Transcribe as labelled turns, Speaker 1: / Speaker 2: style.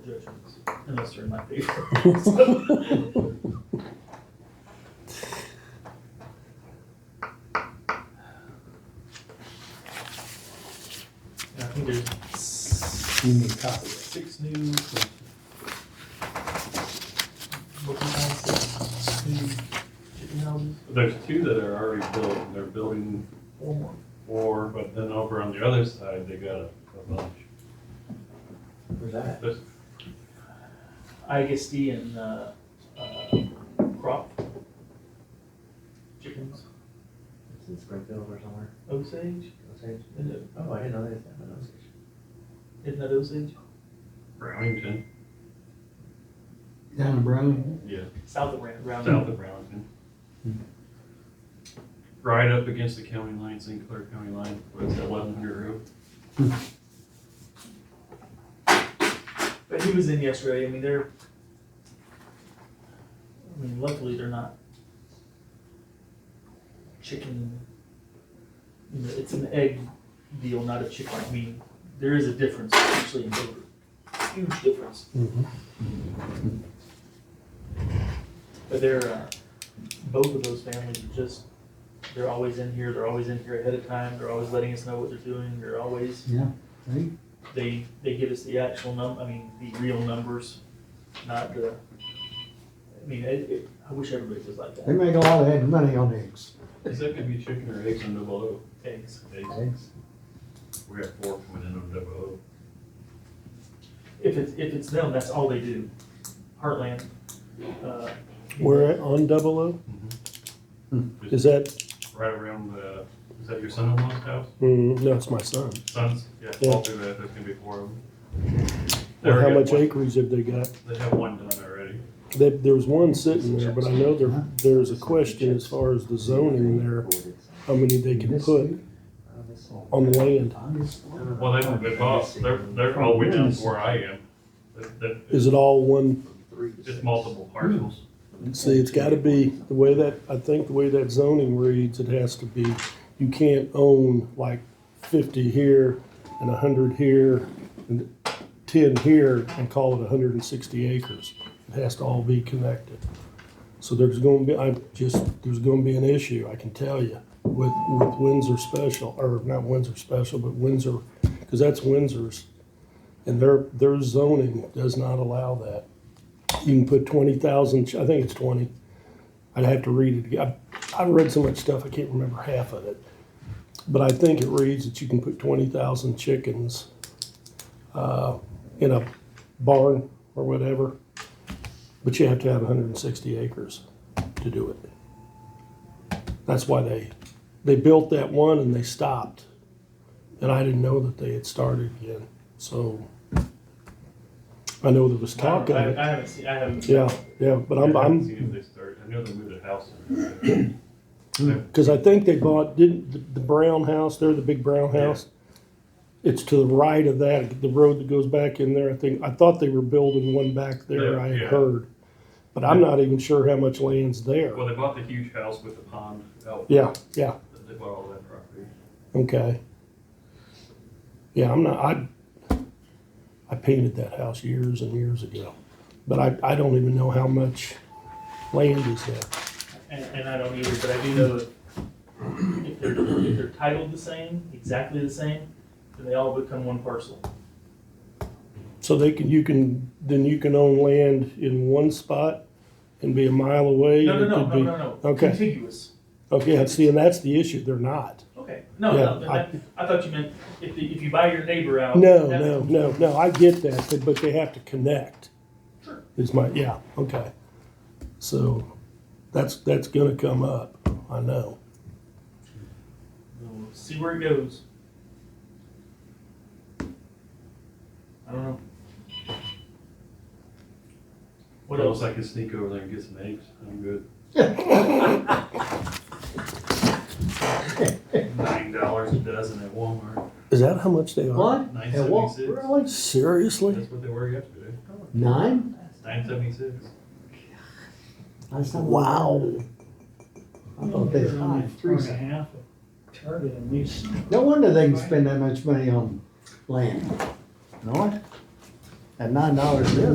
Speaker 1: judgments, unless they're in my favor. I think there's
Speaker 2: You need a copy.
Speaker 1: six new. What we found, six new chicken houses,
Speaker 3: There's two that are already built, and they're building
Speaker 1: four more.
Speaker 3: four, but then over on the other side, they got a a bunch.
Speaker 1: Where's that?
Speaker 3: There's
Speaker 1: ISD and, uh, uh, crop. Chickens,
Speaker 4: It's in Springfield or somewhere.
Speaker 1: Osage,
Speaker 4: Osage.
Speaker 1: isn't it,
Speaker 4: Oh, I didn't know they had an Osage.
Speaker 1: isn't that Osage?
Speaker 3: Brownington,
Speaker 2: Down in Brown.
Speaker 3: yeah,
Speaker 1: South of Round, Round.
Speaker 3: south of Brownington. Right up against the county line, St. Clair County line, with the eleven hundred road.
Speaker 1: But he was in yesterday, I mean, they're, I mean, luckily they're not chicken, you know, it's an egg deal, not a chicken, I mean, there is a difference actually in flavor, huge difference. But they're, uh, both of those families are just, they're always in here, they're always in here ahead of time, they're always letting us know what they're doing, they're always,
Speaker 2: Yeah, right?
Speaker 1: they, they give us the actual num, I mean, the real numbers, not the, I mean, it, it, I wish everybody was like
Speaker 2: They
Speaker 1: that.
Speaker 2: make a lot of head money on eggs.
Speaker 3: Is that gonna be chicken or eggs on double O?
Speaker 1: Eggs.
Speaker 3: Eggs.
Speaker 2: Eggs.
Speaker 3: We have four coming in on double O.
Speaker 1: If it's, if it's them, that's all they do. Heartland, uh.
Speaker 5: We're at on double O? Hmm. Is that,
Speaker 3: Right around the, is that your son-in-law's house?
Speaker 5: mm, no, it's my son.
Speaker 3: Sons, yeah,
Speaker 5: Yeah.
Speaker 3: all through that, there's gonna be four of them. They
Speaker 5: Well, how
Speaker 3: already
Speaker 5: much
Speaker 3: got one-
Speaker 5: acreage have they got?
Speaker 3: They have one done already.
Speaker 5: They, there was one sitting there, but I know there, there's a question as far as the zoning there,
Speaker 4: Oh,
Speaker 5: how many they can put on land.
Speaker 3: Well, they won't get off, they're, they're all the way down to where I am. That- that-
Speaker 5: Is it all one,
Speaker 3: It's multiple parcels.
Speaker 5: see, it's gotta be, the way that, I think the way that zoning reads, it has to be, you can't own like fifty here and a hundred here and ten here and call it hundred and sixty acres. It has to all be connected. So there's gonna be, I just, there's gonna be an issue, I can tell you, with, with Windsor Special, or not Windsor Special, but Windsor, because that's Windsor's. And their, their zoning does not allow that. You can put twenty thousand, I think it's twenty. I'd have to read it again. I've read so much stuff, I can't remember half of it. But I think it reads that you can put twenty thousand chickens, uh, in a barn or whatever. But you have to have hundred and sixty acres to do it. That's why they, they built that one and they stopped. And I didn't know that they had started again, so. I know there was talk of
Speaker 1: I,
Speaker 5: it.
Speaker 1: I haven't seen, I haven't.
Speaker 5: Yeah, yeah, but I'm,
Speaker 3: I haven't
Speaker 5: I'm,
Speaker 3: seen if they start, I know they moved a house. in there.
Speaker 5: because I think they bought, didn't, the, the brown house there, the big brown
Speaker 3: Yeah.
Speaker 5: house? It's to the right of that, the road that goes back in there, I think, I thought they were building one back there,
Speaker 3: Yeah,
Speaker 5: I
Speaker 3: yeah.
Speaker 5: had heard. But I'm not even sure how much land's there.
Speaker 3: Well, they bought the huge house with the pond out.
Speaker 5: Yeah, yeah,
Speaker 3: They bought all that property.
Speaker 5: okay. Yeah, I'm not, I, I painted that house years and years ago, but I, I don't even know how much land is there.
Speaker 1: And, and I don't either, but I do know if, if they're, if they're titled the same, exactly the same, then they all become one parcel.
Speaker 5: So they can, you can, then you can own land in one spot and be a mile away?
Speaker 1: No,
Speaker 5: and
Speaker 1: no,
Speaker 5: it
Speaker 1: no,
Speaker 5: could
Speaker 1: no,
Speaker 5: be-
Speaker 1: no, no.
Speaker 5: okay.
Speaker 1: Contiguous.
Speaker 5: Okay, I see, and that's the issue, they're not.
Speaker 1: Okay, no,
Speaker 5: Yeah,
Speaker 1: no, then
Speaker 5: I-
Speaker 1: that- I thought you meant if, the- if you buy your neighbor out.
Speaker 5: No,
Speaker 1: that-
Speaker 5: no, no, no, I get that, but- but they have to connect.
Speaker 1: Sure.
Speaker 5: Is my, yeah, okay. So that's, that's gonna come up, I know.
Speaker 1: We'll See where it goes. I don't know. What else?
Speaker 3: I can sneak over there and get some eggs, I'm good. Nine dollars a dozen at Walmart,
Speaker 5: Is that how much they are?
Speaker 2: What?
Speaker 3: nine
Speaker 2: And what?
Speaker 3: seventy-six.
Speaker 2: Really?
Speaker 5: Seriously?
Speaker 3: That's what they were yesterday,
Speaker 2: Nine?
Speaker 3: nine seventy-six.
Speaker 2: That's not-
Speaker 5: Wow.
Speaker 2: I thought they
Speaker 6: Only
Speaker 2: five,
Speaker 6: four
Speaker 2: three.
Speaker 6: and a half of target at least.
Speaker 2: No wonder they can spend that much money on land. No? at nine dollars an